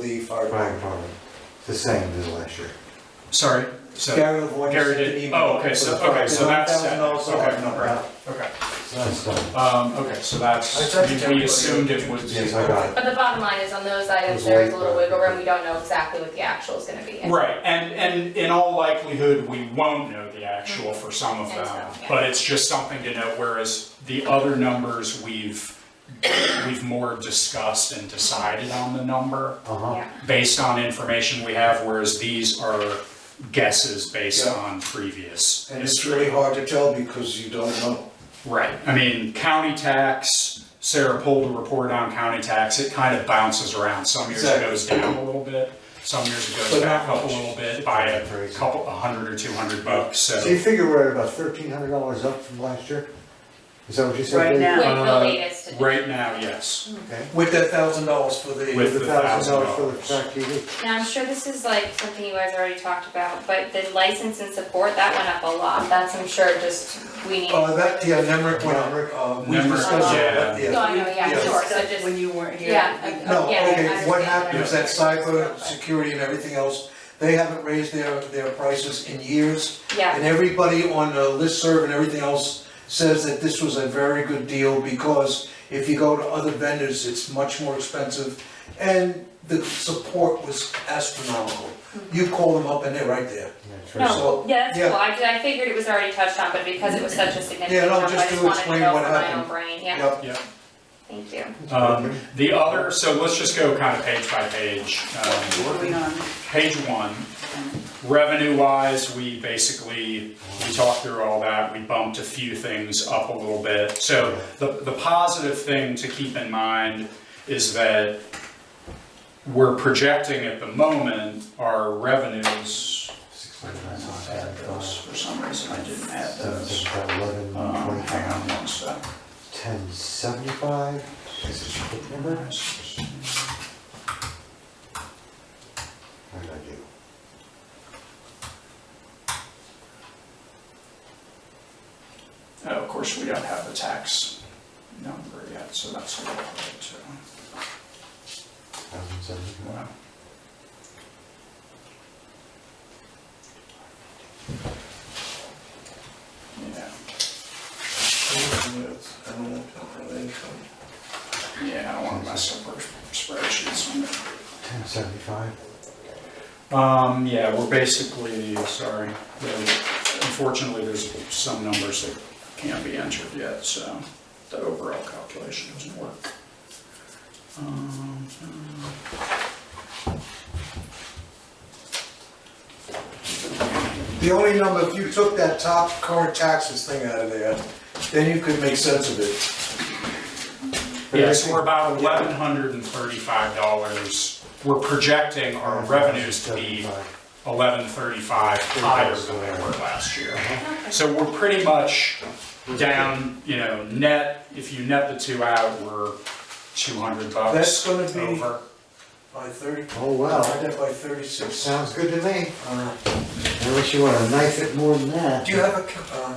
The fire Fire department, it's the same as last year. Sorry, so, Gary Lavoie Gary sent an did- email oh, okay, for so- the fire- okay, so that's set. $9,000 Okay, off. no problem. okay, So It's done. um, okay, so I that's, sent it to we everybody. assumed it was. Yes, I got it. But the bottom line is on those items, there is a little wiggle room, we don't know exactly what the actual is gonna be. Right, and, and in all likelihood, we won't know the actual for some of And so, them, yeah. but it's just something to note, whereas the other numbers, we've, we've more discussed and decided on the number Uh-huh. Yeah, based on information we have, whereas these are guesses based Yeah. on previous And it's history. really hard to tell because you don't know. Right, I mean, county tax, Sarah pulled a report on county tax, it kind of bounces around, some years it Exactly. goes down a little bit, some years it goes But back not up a much. little bit by a couple, a hundred or two hundred bucks, So you so. figure we're at about thirteen hundred dollars up from last year? Is that what you said? Right Dave? now. with the Uh, latest. Right now, yes, Okay. With that thousand dollars for the. With- The the thousand dollars for the $1,000. track TV? Now, I'm sure this is like something you guys already talked about, but the license and support, that went up a lot, that's, I'm sure, just, we need. Uh, that, yeah, Nemrick, went uh, we Nemrick, discussed it, but yeah. No, I know, Yeah. Oh, yeah, sure, so Stuff just, When you weren't here. yeah. we- I- No, yeah, I okay, Oh, what understand. happened is that cyber security and everything else, they haven't raised their, their prices in years. Yeah, And everybody on the listserv and everything else says that this was a very good deal because if you go to other vendors, it's much more expensive. And the support was astronomical. You call them up and they're right there. Yeah, sure. so, Mm-hmm. no, yeah, that's yeah. cool, I, I figured it was already touched on, but because it was such a Yeah, significant no, number, I just just to wanted to explain go what from my happened. own brain, yeah, Yep. yeah. thank you. Um, the other, so let's just go kind of page by page. Um, Going on. Page one, revenue wise, we basically, we talked through all that, we bumped a few things up a little bit. So the, the positive thing to keep in mind is that we're projecting at the moment our revenues. Six hundred, nine I hundred, had five those hundred, For some reason, I didn't add seven, those. seven, five, eleven, Um, hang on twenty-five, one sec. ten, seventy-five, is this a quick number? What did I do? Oh, Of course, we don't have the tax number yet, so that's a little hard to. Thousand seventy-five? Wow. Yeah, yeah, I don't wanna mess up our spreadsheets on that. Ten seventy-five? Um, yeah, we're basically, sorry, there- unfortunately, there's some numbers that can't be entered yet, so the overall calculation doesn't work. Um, The only number, if you took that top current taxes thing out of there, then you could make sense of it. Yeah, so we're about eleven hundred and thirty-five dollars. We're projecting our revenues to be eleven thirty-five higher than they were last year. Uh-huh. So we're pretty much down, you know, net, if you net the two out, we're two hundred bucks. That's gonna be- Over. By thirty, Oh, I well, did by thirty-six. sounds good to me, Uh, Uh-huh. unless you wanna knife it more than that. Do you have a, ca-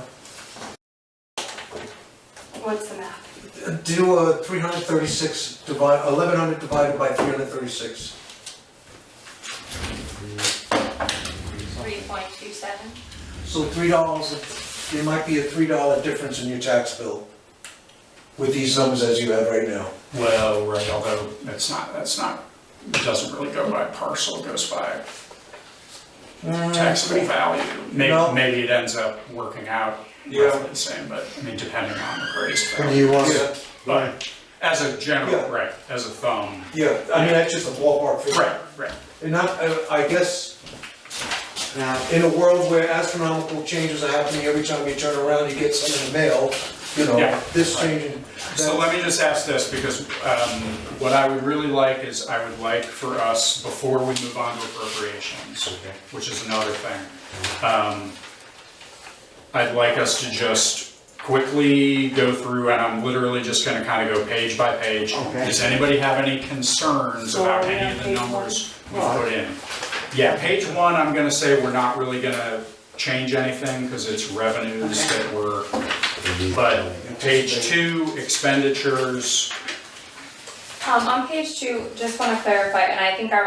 What's the map? uh, do a three hundred thirty-six divide, eleven hundred divided by three hundred thirty-six? Three point two seven? So three dollars, there might be a three dollar difference in your tax bill with these numbers as you have right now. Well, right, although that's not, that's not, it doesn't really go by parcel, it goes by taxable value. No. Maybe, maybe it ends up working out Yeah. roughly the same, but, I mean, depending on the grace Or do value. you want, Yeah, But as a Yeah. general, right, as a thumb, yeah, I mean, that's just a ballpark figure. right, right. And not, I- I guess, now, in a world where astronomical changes are happening every time you turn around, you get something in the mail, you know, Yeah. this changing. So let me just ask this, because um, what I would really like is, I would like for us, before we move on to appropriations, which is another thing, um, I'd like us to just quickly go through, and I'm literally just gonna kind of go page by page. Okay. Does anybody have any concerns So are about we any on of the page one? numbers we Well, I- put in? Yeah, page one, I'm gonna say we're not really gonna change anything, because it's revenues that we're but page two, expenditures, Um, on page two, just wanna clarify, and I think I